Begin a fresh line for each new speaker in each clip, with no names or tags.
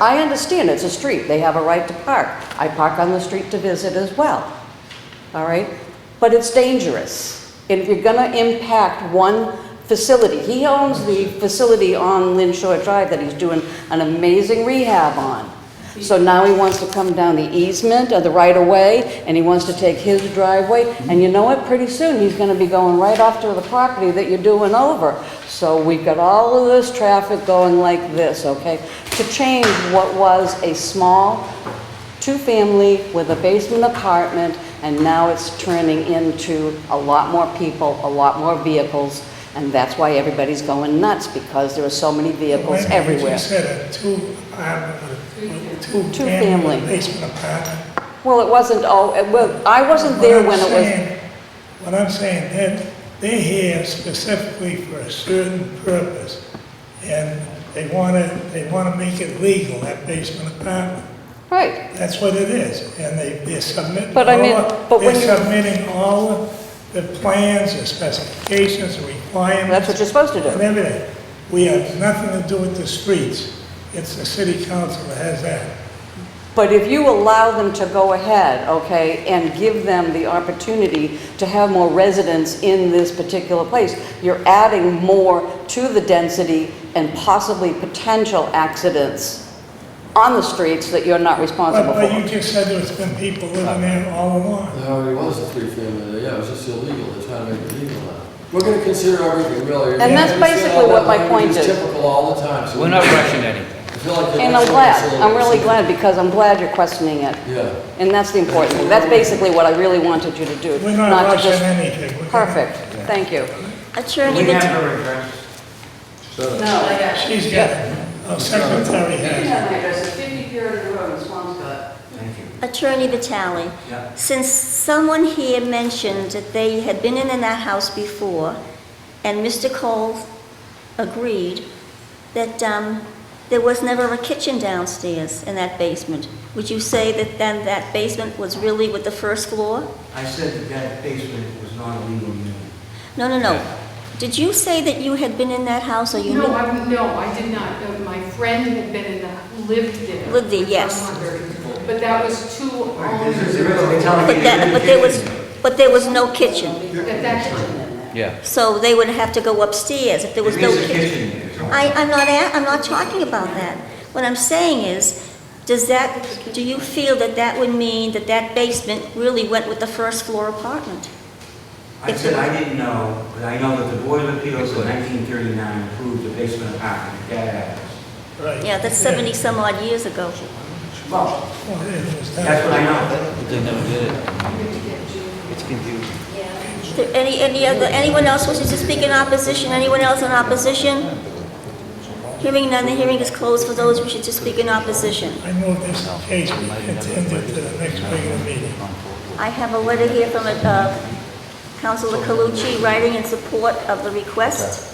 I understand it's a street, they have a right to park. I park on the street to visit as well, all right? But it's dangerous. And if you're gonna impact one facility, he owns the facility on Lynn Shore Drive that he's doing an amazing rehab on. So now he wants to come down the easement or the right-of-way, and he wants to take his driveway, and you know what? Pretty soon, he's gonna be going right off to the property that you're doing over. So we've got all of this traffic going like this, okay? To change what was a small two-family with a basement apartment, and now it's turning into a lot more people, a lot more vehicles, and that's why everybody's going nuts, because there are so many vehicles
Wait a minute,
everywhere.
You said a two, apartment, a
family.
two-family basement apartment.
Well, it wasn't, oh, it well, I wasn't there when it
What I'm
was,
saying- What I'm saying, that they're here specifically for a certain purpose, and they want to, they want to make it legal, that basement apartment.
right,
That's what it is, and they, they're submitting.
But I mean,
all-
but when you-
They're submitting all the plans, the specifications, the requirements.
that's what you're supposed to
and
do.
everything. We have nothing to do with the streets. It's the city council that has that.
But if you allow them to go ahead, okay, and give them the opportunity to have more residents in this particular place, you're adding more to the density and possibly potential accidents on the streets that you're not
But,
responsible
but you
for.
just said there's been people living there all along.
It already was a three-family there, yeah, it was just illegal, they're trying to make it legal now. We're gonna consider everything, really.
And that's
We understand
basically what
that
my
language
point is.
Typical all the time, so.
We're not rushing anything.
I feel like you're
And I'm
actually
glad,
considering
I'm really
something.
glad, because I'm glad you're questioning it.
Yeah,
And that's the important thing. That's basically what I really wanted you to do.
We're not
to
rushing
just-
anything. We're gonna-
Perfect, thank you.
Attorney,
We have
Mat-
no regrets.
She's got, our secretary has. it.
Attorney Vitale,
Yeah.
since someone here mentioned that they had been in that house before, and Mr. Cole agreed that um, there was never a kitchen downstairs in that basement, would you say that then that basement was really with the first floor?
I said that that basement was not a legal unit.
No, no, no.
Yeah.
Did you say that you had been in that house, or you knew?
No, I, no, I did not. Uh, My friend had been in the, lived there.
Lived there,
for
yes.
100, But that was two
There's-
owners.
there's- they're telling me
But that,
there's no
but there was,
kitchen.
but there was no kitchen,
At that time.
Yeah.
so they would have to go upstairs if there was no
There is a
kitchen.
kitchen there. Tony.
I, I'm not, a- I'm not talking about that. What I'm saying is, does that, do you feel that that would mean that that basement really went with the first floor apartment?
I said I didn't know, but I know that the Board of Appeals in 1939 approved the basement apartment at that address.
Right.
Yeah, that's 70-some odd years ago.
Well,
Well, it was
that's
done.
what I know.
But they never did it. It's confusing.
Is there Any, any other, anyone else wishes to speak in opposition? Anyone else in opposition? Hearing none, the hearing is closed for those wishing to speak in opposition.
I move this case be continued to the next regular meeting.
I have a letter here from uh, Councilor Calucci writing in support of the request.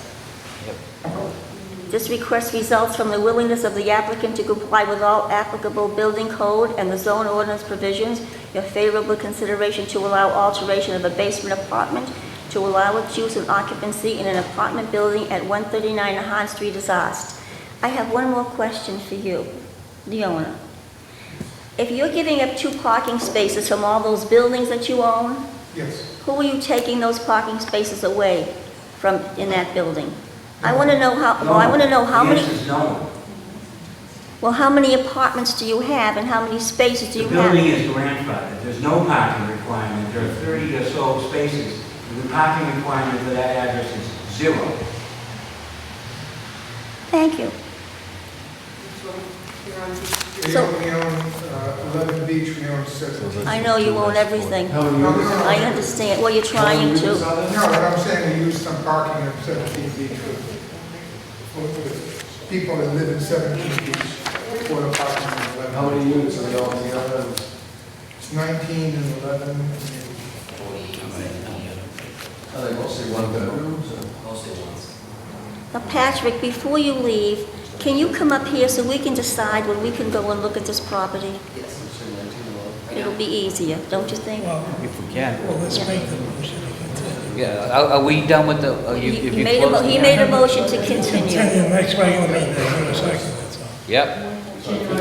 This request results from the willingness of the applicant to comply with all applicable building code and the zone ordinance provisions. Your favorable consideration to allow alteration of a basement apartment to allow its use and occupancy in an apartment building at 139 Han Street is asked. I have one more question for you, the owner. If you're giving up two parking spaces from all those buildings that you own,
Yes.
who are you taking those parking spaces away from in that building? I want to know how, well, I want to know how
The
many,
answer is no.
well, how many apartments do you have and how many spaces do
The
you
building
have?
is grandfathered. There's no parking requirement. There are 30 or so spaces. and The parking requirement for that address is zero.
Thank you.
We
So-
own, we own uh, 11 Beach, we own 6. No,
I know you own everything.
how many
no,
years?
no.
I understand, well, you're trying to.
what I'm saying, we use some parking at 17 Beach with, with people that live in 17 Beach, for apartments and
How
11.
many units are all together?
It's 19 and 11. and-
Are they mostly one bedrooms or?
Now, Patrick, before you leave, can you come up here so we can decide when we can go and look at this property?
Say 19 or-
It'll be easier, don't you think?
Well,
If we can.
well, let's make the motion to
Yeah, are, are we done with the, are you,
He
if
he
you
made a,
close
mo-
the
he made a
hearing?
motion to
continue.
continue.
Continue next regular meeting, in a second, that's all.
Yep,
general